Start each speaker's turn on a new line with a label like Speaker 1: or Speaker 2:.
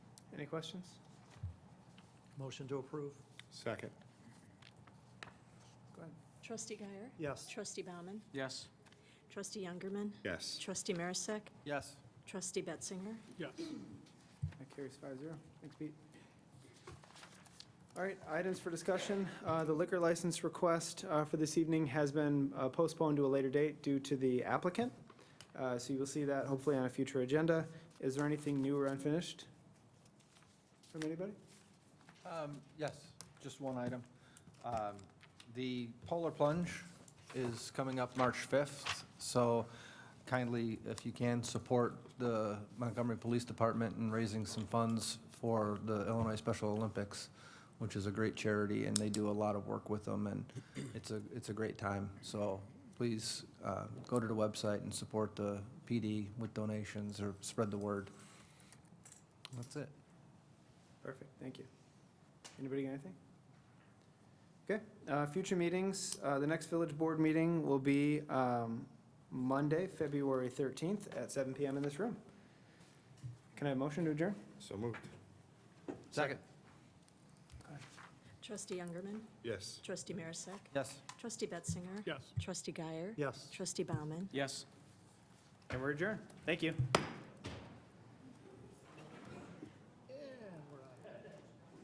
Speaker 1: Any questions?
Speaker 2: Motion to approve?
Speaker 3: Second.
Speaker 1: Go ahead.
Speaker 4: Trustee Guyer?
Speaker 2: Yes.
Speaker 4: Trustee Bauman,
Speaker 5: Yes.
Speaker 4: Trustee Youngerman?
Speaker 3: Yes.
Speaker 4: Trustee Marisak?
Speaker 5: Yes.
Speaker 4: Trustee Betzinger?
Speaker 1: That carries five zero. Thanks, Pete. All right, items for discussion. Uh, The liquor license request uh, for this evening has been uh, postponed to a later date due to the applicant. Uh, So you will see that hopefully on a future agenda. Is there anything new or unfinished from anybody?
Speaker 5: Um, Yes, just one item. Um, The Polar Plunge is coming up March 5th, so kindly, if you can, support the Montgomery Police Department in raising some funds for the Illinois Special Olympics, which is a great charity, and they do a lot of work with them, and it's a, it's a great time. So please uh, go to the website and support the PD with donations or spread the word. That's it.
Speaker 1: Perfect, thank you. Anybody got anything? Okay, uh, future meetings, uh, the next village board meeting will be, um, Monday, February thirteenth at seven PM in this room. Can I have a motion to adjourn?
Speaker 3: So moved.
Speaker 5: Second.
Speaker 4: Trustee Youngerman?
Speaker 3: Yes.
Speaker 4: Trustee Marisak?
Speaker 5: Yes.
Speaker 4: Trustee Betzinger?
Speaker 2: Yes.
Speaker 4: Trustee Guyer?
Speaker 2: Yes.
Speaker 4: Trustee Bauman,
Speaker 5: Yes.
Speaker 1: And we're adjourned. Thank you.